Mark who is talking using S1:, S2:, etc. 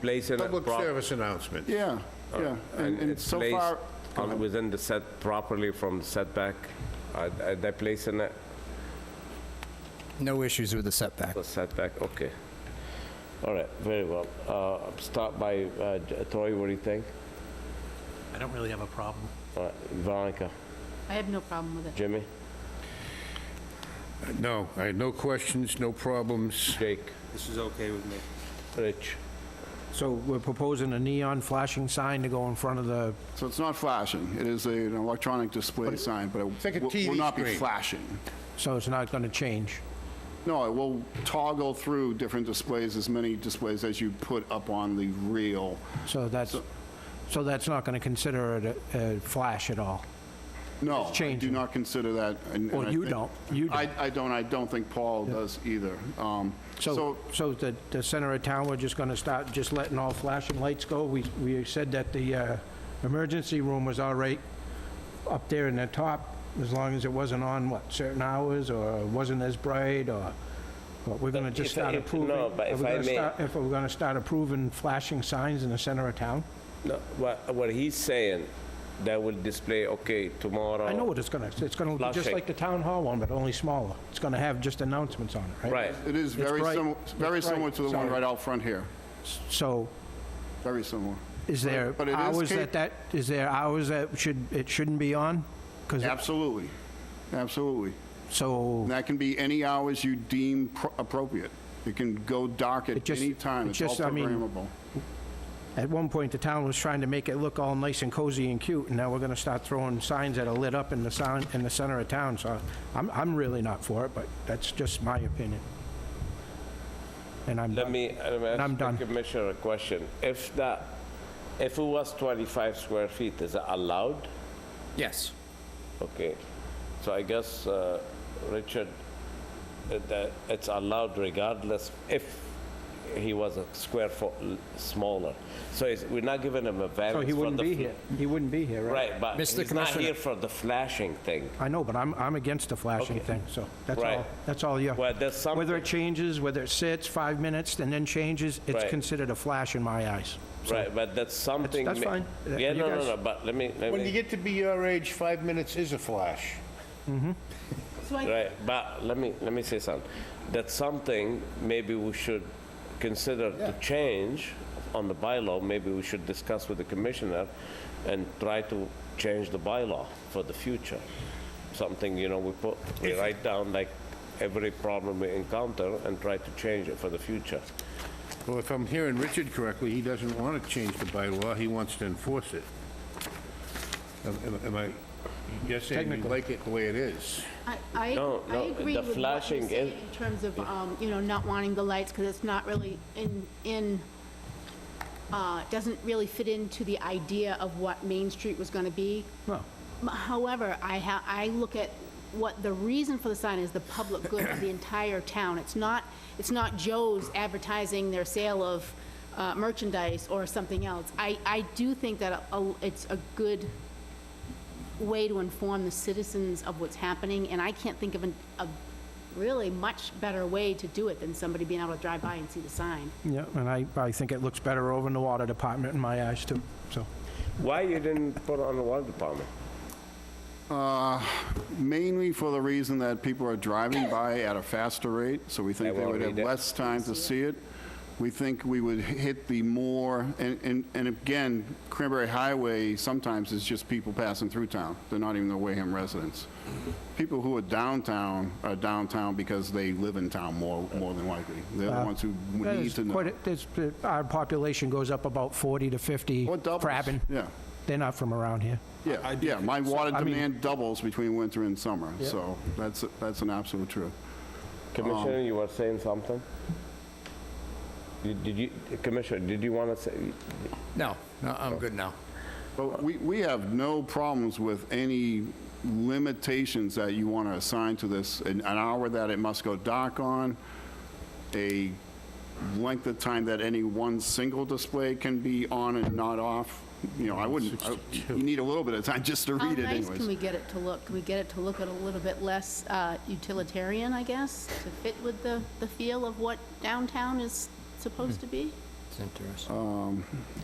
S1: place in a
S2: Public
S1: proper...
S2: service announcement.
S3: Yeah, yeah. And and
S1: Uh, it's
S3: so
S1: placed
S3: far,
S1: on- Within the set properly from setback, are are they placing it,
S4: No issues with the setback.
S1: the setback, okay. All right, very well. Uh, Start by, uh, J- Troy, what do you think?
S5: I don't really have a problem.
S1: All right, Veronica,
S6: I have no problem with it.
S1: Jimmy,
S2: No, I had no questions, no problems.
S1: Jake,
S7: This is okay with me.
S1: Rich.
S8: So we're proposing a neon flashing sign to go in front of the,
S3: so it's not flashing. It is a- an electronic display sign, but
S2: like a
S3: it will-
S2: TV
S3: will not be
S2: screen.
S3: flashing.
S8: so it's not going to change.
S3: No, it will toggle through different displays, as many displays as you put up on the reel.
S8: So that's, so that's not going to consider it a a flash at all.
S3: No, I do
S8: changing.
S3: not consider that. and- and
S8: Well,
S3: I
S8: you
S3: think-
S8: don't. You
S3: I-
S8: don't.
S3: I don't, I don't think Paul does either. Um,
S8: So,
S3: So,
S8: so the, the center of town, we're just going to start just letting all flashing lights go? We, we said that the uh, emergency room was all right up there in the top, as long as it wasn't on, what, certain hours, or wasn't as bright, or, but we're going to
S1: If-
S8: just start
S1: if-
S8: approving?
S1: no, but
S8: are we
S1: if I
S8: gonna
S1: may-
S8: start- If we're going to start approving flashing signs in the center of town?
S1: No, what, what he's saying, they will display, okay, tomorrow.
S8: I know what it's gonna, it's gonna look just
S1: Flashing.
S8: like the town hall one, but only smaller. It's gonna have just announcements on it, right?
S1: Right,
S3: it is
S8: It's
S3: very
S8: bright.
S3: similar,
S8: It's
S3: very
S8: bright.
S3: similar to the one
S8: Sorry.
S3: right out front here.
S8: So
S3: Very similar.
S8: is there
S3: But it is
S8: hours
S3: cap-
S8: that that, is there hours that should, it shouldn't be on? 'Cause it-
S3: Absolutely, absolutely.
S8: so
S3: And that can be any hours you deem pro- appropriate. It can go dark
S8: It
S3: at
S8: just-
S3: any time.
S8: it
S3: It's all
S8: just- I mean-
S3: programmable.
S8: at one point, the town was trying to make it look all nice and cozy and cute, and now we're gonna start throwing signs that are lit up in the sound, in the center of town, so I'm, I'm really not for it, but that's just my opinion. And I'm,
S1: let me,
S8: And
S1: I'm
S8: I'm done.
S1: ask the commissioner a question. If that, if it was 25 square feet, is it allowed?
S4: Yes.
S1: Okay, so I guess, uh, Richard, uh, that it's allowed regardless if he was a square foot l- smaller. So it's- we're not giving him a variance
S8: so
S1: for the...
S8: he wouldn't be
S1: fl-
S8: here. He wouldn't be here, right?
S1: Right, but
S4: Mr.
S1: he's not
S4: Commissioner.
S1: here for the flashing thing.
S8: I know, but I'm, I'm against the flashing
S1: Okay.
S8: thing, so that's
S1: Right.
S8: all, that's all, yeah.
S1: Well, there's some-
S8: Whether it changes, whether it sits five minutes and then changes, it's
S1: Right.
S8: considered a flash in my eyes.
S1: Right, but that's something...
S8: that's
S1: ma-
S8: fine. Uh,
S1: Yeah,
S8: you
S1: no, no,
S8: guys-
S1: no, but let me, let
S2: When you
S1: me,
S2: get to be your age, five minutes is a flash.
S6: So I-
S1: right, but let me, let me say something. That's something maybe we should consider to change on the bylaw. Maybe we should discuss with the commissioner and try to change the bylaw for the future. Something, you know, we put, we write down like every problem we encounter and try to change it for the future.
S2: Well, if I'm hearing Richard correctly, he doesn't want to change the bylaw, he wants to enforce it. Am- am- Am I, you're saying you
S8: Technically.
S2: like it the way it is?
S6: I, I,
S1: No,
S6: I
S1: no,
S6: agree
S1: the
S6: with what
S1: flashing
S6: you're
S1: is-
S6: saying in terms of, um, you know, not wanting the lights because it's not really in, in, uh, doesn't really fit into the idea of what Main Street was going to be.
S8: No.
S6: M- However, I ha, I look at what the reason for the sign is, the public good of the entire town. It's not, it's not Joe's advertising their sale of uh, merchandise or something else. I, I do think that a- it's a good way to inform the citizens of what's happening, and I can't think of an- a really much better way to do it than somebody being able to drive by and see the sign.
S8: Yeah, and I, I think it looks better over in the water department in my eyes too, so.
S1: Why you didn't put on the water department?
S3: Uh, Mainly for the reason that people are driving by at a faster rate, so we think
S1: They
S3: they
S1: won't
S3: would have
S1: read it.
S3: less time to see it. We think we would hit the more, and, and and again, Cranberry Highway sometimes is just people passing through town. They're not even the Wareham residents. People who are downtown are downtown because they live in town more, more than likely. They're the ones who need
S8: There's
S3: to know.
S8: Uh, quite a- there's- uh, Our population goes up about 40 to 50
S3: Or doubles.
S8: crabbing.
S3: Yeah,
S8: They're not from around here.
S3: yeah, yeah. My water
S8: I mean-
S3: demand doubles between winter and summer, so that's, that's an absolute truth.
S1: Commissioner, you were saying something? Did did you, Commissioner, did you want to say?
S4: No, no, I'm good now.
S3: But we, we have no problems with any limitations that you want to assign to this, an an hour that it must go dark on, a length of time that any one single display can be on and not off. You know, I wouldn't, I- you need a little bit of time just to read it
S6: How nice can
S3: anyways.
S6: we get it to look? Can we get it to look at a little bit less uh,
S3: Hmm.
S6: utilitarian, I guess, to fit with the, the feel of what downtown is supposed to be?
S4: It's interesting.